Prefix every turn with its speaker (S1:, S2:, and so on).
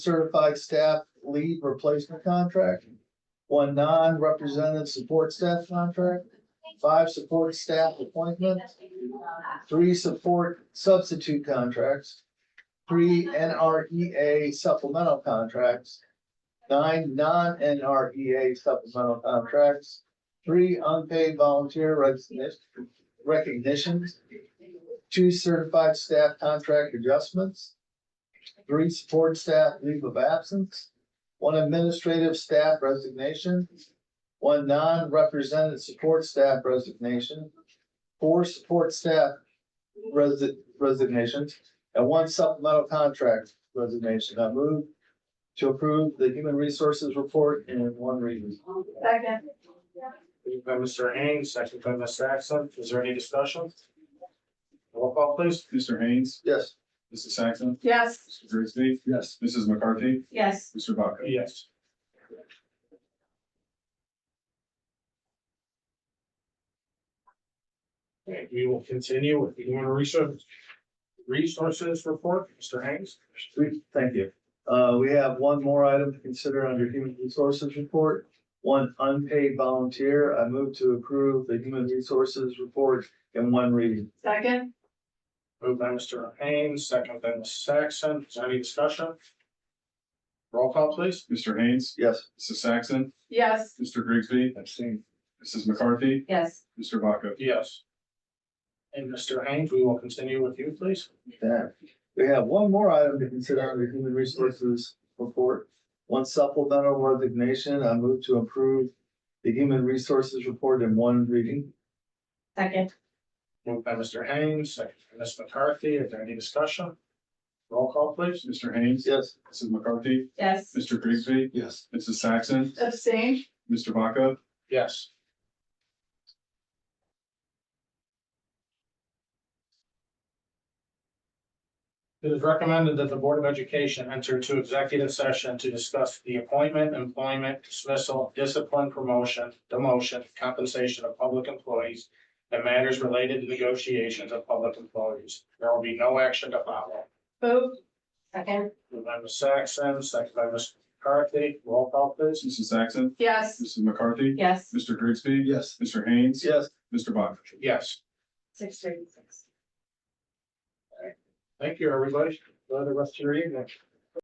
S1: certified staff lead replacement contract. One non-represented support staff contract, five support staff appointments, three support substitute contracts, three NREA supplemental contracts, nine non-NREA supplemental contracts, three unpaid volunteer recognition- recognitions, two certified staff contract adjustments, three support staff leave of absence, one administrative staff resignation, one non-represented support staff resignation, four support staff resi- resignations, and one supplemental contract resignation. I move to approve the human resources report in one reading.
S2: Second.
S3: Moved by Mr. Haynes, second by Ms. Saxon. Is there any discussion? Roll call, please.
S4: Mr. Haynes,
S1: Yes.
S4: Mrs. Saxon,
S2: Yes.
S4: Mr. Grigsby,
S1: Yes.
S4: Mrs. McCarthy,
S2: Yes.
S4: Mr. Vaca.
S3: Yes. Okay, we will continue with the human resources, resources report, Mr. Haynes.
S1: We, thank you. Uh, we have one more item to consider under human resources report. One unpaid volunteer. I move to approve the human resources report in one reading.
S2: Second.
S3: Moved by Mr. Haynes, second by Ms. Saxon. Is there any discussion? Roll call, please.
S4: Mr. Haynes,
S1: Yes.
S4: Mrs. Saxon,
S2: Yes.
S4: Mr. Grigsby,
S3: Abstain.
S4: Mrs. McCarthy,
S2: Yes.
S4: Mr. Vaca.
S3: Yes. And Mr. Haynes, we will continue with you, please.
S1: That. We have one more item to consider under human resources report. One supplemental resignation. I move to approve the human resources report in one reading.
S2: Second.
S3: Moved by Mr. Haynes, second by Ms. McCarthy. Is there any discussion? Roll call, please.
S4: Mr. Haynes,
S1: Yes.
S4: Mrs. McCarthy,
S2: Yes.
S4: Mr. Grigsby,
S1: Yes.
S4: Mrs. Saxon,
S2: Abstain.
S4: Mr. Vaca.
S3: Yes. It is recommended that the Board of Education enter into executive session to discuss the appointment, employment, dismissal, discipline, promotion, demotion, compensation of public employees, and matters related to negotiations of public employees. There will be no action to follow.
S2: Vote. Second.
S3: Moved by Ms. Saxon, second by Ms. McCarthy. Roll call, please.
S4: Mrs. Saxon,
S2: Yes.
S4: Mrs. McCarthy,
S2: Yes.
S4: Mr. Grigsby.
S1: Yes.
S4: Mr. Haynes,
S1: Yes.
S4: Mr. Vaca.
S3: Yes.
S2: Six thirty-six.
S3: Thank you, everybody. Enjoy the rest of your evening.